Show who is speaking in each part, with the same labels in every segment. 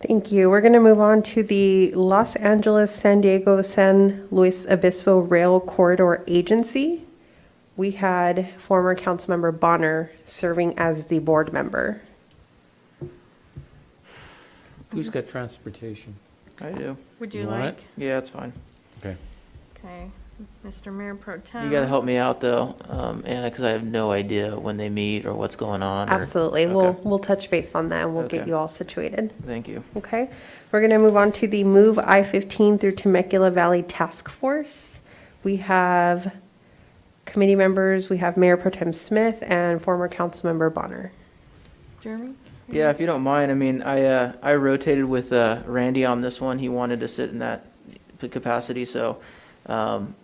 Speaker 1: Thank you. We're going to move on to the Los Angeles, San Diego, San Luis Obispo Rail Corridor Agency. We had former Councilmember Bonner serving as the board member.
Speaker 2: Who's got transportation?
Speaker 3: I do.
Speaker 4: Would
Speaker 2: You
Speaker 4: you
Speaker 2: want
Speaker 4: like?
Speaker 2: it?
Speaker 3: Yeah, it's fine.
Speaker 2: Okay.
Speaker 4: Okay, Mr. Mayor Pro Tem.
Speaker 3: You gotta help me out though, um, Anna, because I have no idea when they meet or what's going on. or-
Speaker 1: Absolutely. We'll,
Speaker 3: Okay.
Speaker 1: we'll touch base on that and we'll get
Speaker 3: Okay.
Speaker 1: you all situated.
Speaker 3: Thank you.
Speaker 1: Okay, we're going to move on to the Move I-15 through Temecula Valley Task Force. We have committee members, we have Mayor Pro Tem Smith and former Councilmember Bonner.
Speaker 4: Jeremy?
Speaker 3: Yeah, if you don't mind, I mean, I, uh, I rotated with, uh, Randy on this one. He wanted to sit in that capacity, so, um,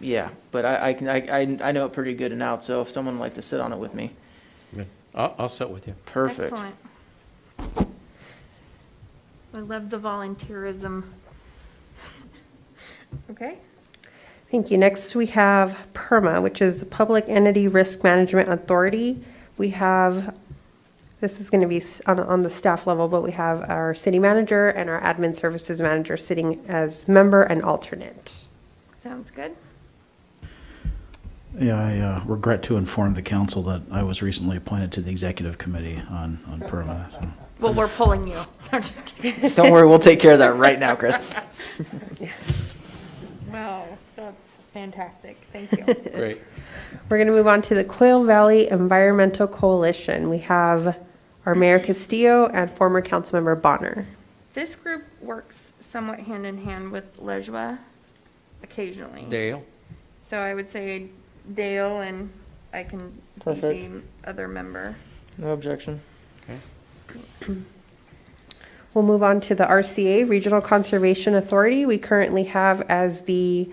Speaker 3: yeah, but I, I can, I, I- I know it pretty good and out, so if someone would like to sit on it with me,
Speaker 2: Good. I'll, I'll sit with you.
Speaker 3: perfect.
Speaker 4: Excellent. I love the volunteerism. Okay,
Speaker 1: Thank you. Next, we have PERMA, which is Public Entity Risk Management Authority. We have, this is going to be s- on, on the staff level, but we have our city manager and our admin services manager sitting as member and alternate.
Speaker 4: sounds good.
Speaker 5: Yeah, I uh, regret to inform the council that I was recently appointed to the executive committee on, on PERMA. so.
Speaker 4: Well, we're pulling you. I'm just kidding.
Speaker 3: Don't worry, we'll take care of that right now, Chris.
Speaker 4: Wow, that's fantastic. Thank you.
Speaker 2: Great.
Speaker 1: We're going to move on to the Quail Valley Environmental Coalition. We have our Mayor Castillo and former Councilmember Bonner.
Speaker 4: This group works somewhat hand in hand with Lejua occasionally.
Speaker 2: Dale?
Speaker 4: So I would say Dale and I can be the
Speaker 3: Perfect.
Speaker 4: other member.
Speaker 3: No objection.
Speaker 2: Okay.
Speaker 1: We'll move on to the RCA, Regional Conservation Authority. We currently have as the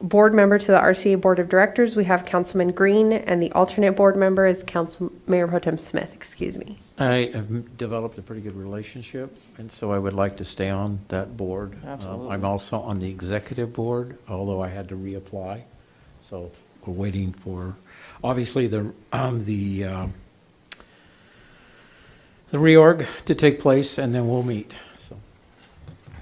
Speaker 1: board member to the RCA Board of Directors, we have Councilman Green, and the alternate board member is Council, Mayor Pro Tem Smith, excuse me.
Speaker 2: I have developed a pretty good relationship, and so I would like to stay on that board. Um,
Speaker 3: Absolutely.
Speaker 2: I'm also on the executive board, although I had to reapply. So we're waiting for, obviously, the, um, the, um, the reorg to take place, and then we'll meet, so.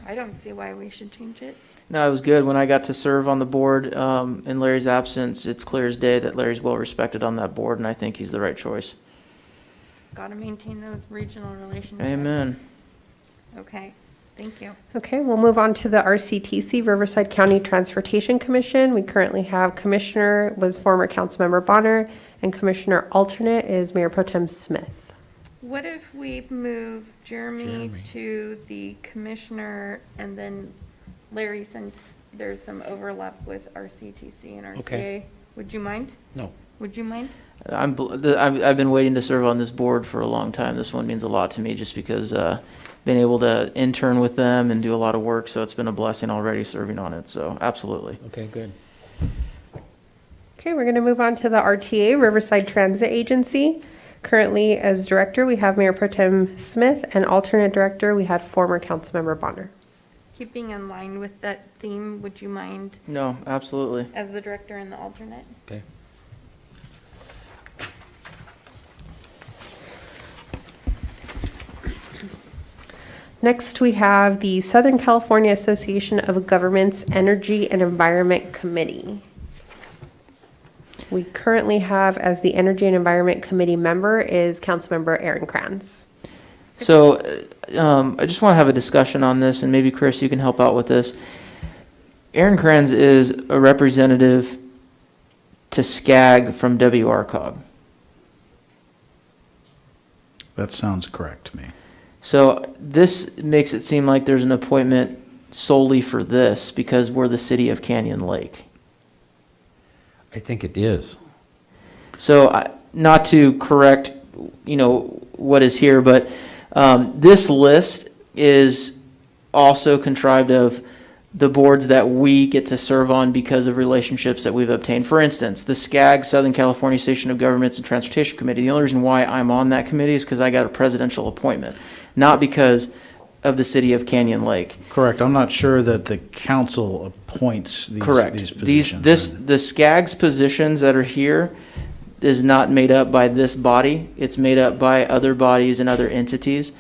Speaker 4: I don't see why we should change it.
Speaker 3: No, it was good. When I got to serve on the board um, in Larry's absence, it's clear as day that Larry's well respected on that board, and I think he's the right choice.
Speaker 4: Got to maintain those regional relationships.
Speaker 3: Amen.
Speaker 4: Okay, thank you.
Speaker 1: Okay, we'll move on to the RCTC, Riverside County Transportation Commission. We currently have Commissioner was former Councilmember Bonner, and Commissioner alternate is Mayor Pro Tem Smith.
Speaker 4: What if we move Jeremy
Speaker 2: Jeremy.
Speaker 4: to the commissioner and then Larry, since there's some overlap with RCTC and RCA?
Speaker 2: Okay.
Speaker 4: Would you mind?
Speaker 2: No,
Speaker 4: Would you mind?
Speaker 3: I'm, bl- the- I've I've been waiting to serve on this board for a long time. This one means a lot to me just because uh, been able to intern with them and do a lot of work, so it's been a blessing already serving on it, so absolutely.
Speaker 2: okay, good.
Speaker 1: Okay, we're going to move on to the RTA, Riverside Transit Agency. Currently, as director, we have Mayor Pro Tem Smith, and alternate director, we had former Councilmember Bonner.
Speaker 4: Keeping in line with that theme, would you mind
Speaker 3: No, absolutely.
Speaker 4: as the director and the alternate?
Speaker 2: Okay.
Speaker 1: Next, we have the Southern California Association of Governments Energy and Environment Committee. We currently have as the Energy and Environment Committee member is Councilmember Aaron Kranz.
Speaker 3: So uh, um, I just want to have a discussion on this, and maybe Chris, you can help out with this. Aaron Kranz is a representative to SCAG from WRCOG.
Speaker 5: That sounds correct to me.
Speaker 3: So this makes it seem like there's an appointment solely for this because we're the city of Canyon Lake.
Speaker 2: I think it is.
Speaker 3: So, I- not to correct, you know, what is here, but um, this list is also contrived of the boards that we get to serve on because of relationships that we've obtained. For instance, the SCAG, Southern California Station of Governments and Transportation Committee, the only reason why I'm on that committee is because I got a presidential appointment, not because of the city of Canyon Lake.
Speaker 5: Correct. I'm not sure that the council appoints these,
Speaker 3: Correct.
Speaker 5: these
Speaker 3: These,
Speaker 5: positions.
Speaker 3: this, the SCAG's positions that are here is not made up by this body. It's made up by other bodies and other entities.